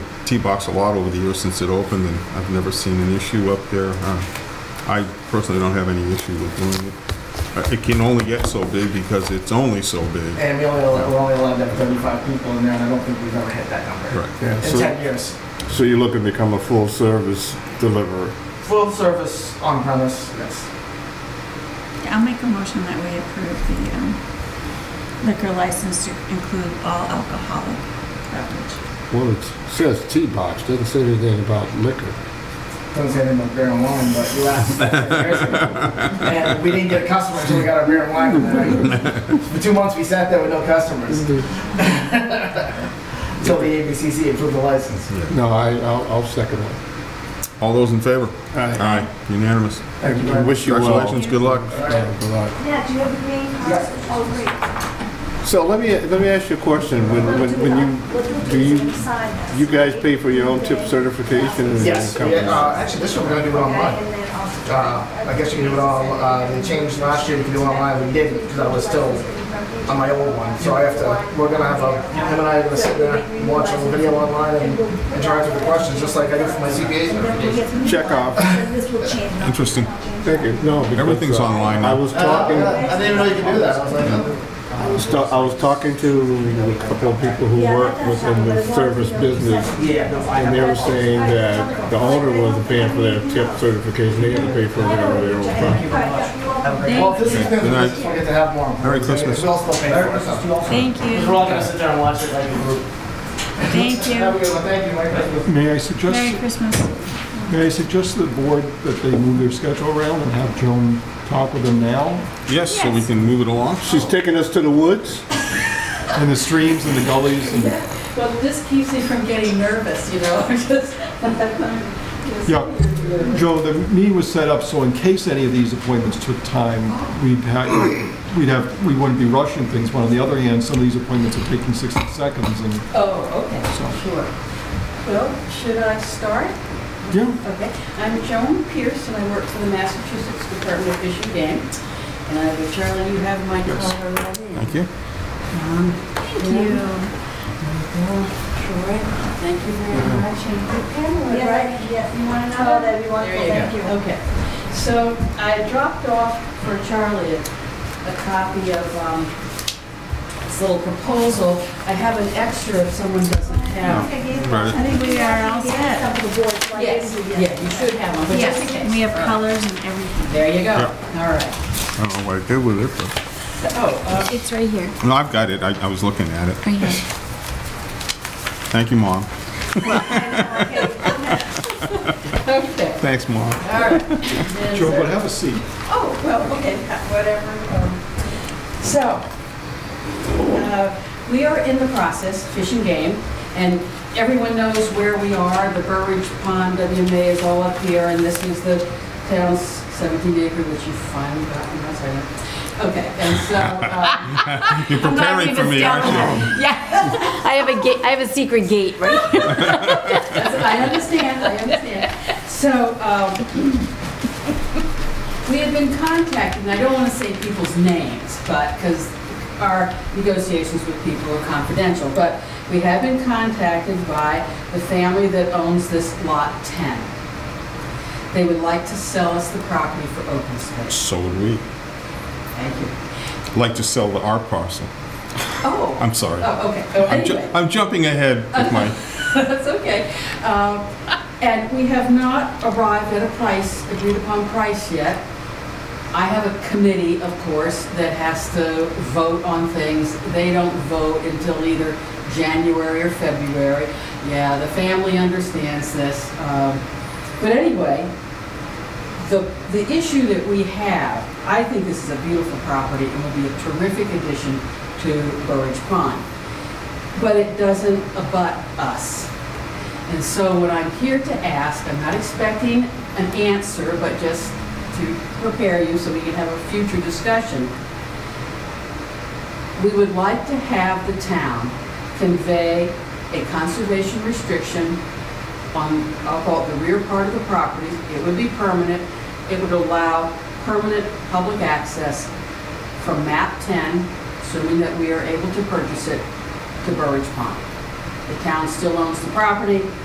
T-Box a lot over the years since it opened, and I've never seen an issue up there. Uh, I personally don't have any issue with doing it. Uh, It can only get so big because it's only so big. And we only, we're only allowed to have 35 people in there, and I don't think we've ever hit that number. Right. Yeah, In so, 10 years. so you're looking to become a full-service deliverer? Full service on premise, yes. I'll make a motion that we approve the um, liquor license to include all alcoholic beverage. Well, it says tea box, doesn't say anything about liquor. Doesn't say anything about beer and wine, but you asked that 10 years ago. And we didn't get a customer until we got our beer and wine. And then For two months, we sat there with no customers until the ABCC approved the license. Yeah. No, I, I'll, I'll second that. All those in favor? I Aye, unanimous. Thank you very much. wish you well. Congratulations, good luck. All right. Yeah, good luck. Yeah, do you have the green cards? Oh, great. So let me, let me ask you a question. When, when, when you, do you- you guys pay for your own tip certification? and Yes, we, company? uh, actually, this one we're gonna do it online. Uh, I guess you can do it all, uh, they changed last year, you could do it online, we didn't, because I was still on my old one, so I have to, we're gonna have a, him and I are gonna sit there, and watch a little video online and interact with the questions, just like I do for my CPAs and everything. Check off. Interesting. Thank you, no. because, Everything's uh, online now. I was Uh, talking, I I didn't even know you could do that, I was like, oh. was ta- I was talking to a couple of people who work within the service business, yeah, no, I and they were saying that the owner wasn't paying for their tip certification, they had to pay for their, their own. product. Well, if this is, Good night. we'll get to have more. Merry Christmas. We'll still pay for it, so. Thank We're all you, gonna sit there and watch it like a group. thank Have a you. good one, thank you, Merry Christmas. May I Merry suggest, Christmas. may I suggest to the board that they move their schedule around and have Joan talk with them now? Yes, so we can move it along. She's taking us to the woods? And the streams and the gullies and, Well, this keeps me from getting nervous, you know, just. yeah. Joe, the meeting was set up so in case any of these appointments took time, we'd have, we'd have, we wouldn't be rushing things. But on the other hand, some of these appointments are taking 60 seconds and Oh, okay, so, sure. Well, should I start? yeah. Okay, I'm Joan Pierce, and I work for the Massachusetts Department of Fish and Game. And I will, Charlie, you have my color right Um, in. Thank you. Thank you. Sure, thank you very Mm-hmm. much, and good panel, right? Yes, you want another, that'd be wonderful, thank you. Okay, so I dropped off for Charlie a a copy of um, this little proposal. I have an extra if someone doesn't have. Right. I think we are all set. Yes, yeah, you should have one, but just in Yes, case. we have colors and everything. There you go. Yeah. All right. I don't know what I did with it, but, Oh, uh, It's right here, no, I've got it. I, I was looking at it. right here. Thank you, Mom. uh, okay, Thanks, Mom. all right. There's Joe, a- but have a seat. Oh, well, okay, whatever. um, So, uh, we are in the process, Fish and Game, and everyone knows where we are. The Burridge Pond, WMA is all up here, and this is the town's 17 acre, which you finally got, and that's right. Okay, and so, uh, You're preparing for me, aren't you? Yeah, I have a gate, I have a secret gate, right? I understand, I understand. So, um, We have been contacted, and I don't want to say people's names, but, because our negotiations with people are confidential, but we have been contacted by the family that owns this Lot 10. They would like to sell us the property for open space. So would we. Thank you. Like to sell the our parcel. Oh. I'm sorry. Oh, okay. Oh, I'm, ju- anyway. I'm jumping ahead with my. That's okay. Um, And we have not arrived at a price, agreed upon price yet. I have a committee, of course, that has to vote on things. They don't vote until either January or February. Yeah, the family understands this. Um, But anyway, the, the issue that we have, I think this is a beautiful property and will be a terrific addition to Burridge Pond but it doesn't abut us. And so what I'm here to ask, I'm not expecting an answer, but just to prepare you so we can have a future discussion. We would like to have the town convey a conservation restriction on, I'll call it the rear part of the property. It would be permanent. It would allow permanent public access from map 10, assuming that we are able to purchase it, to Burridge Pond. The town still owns the property,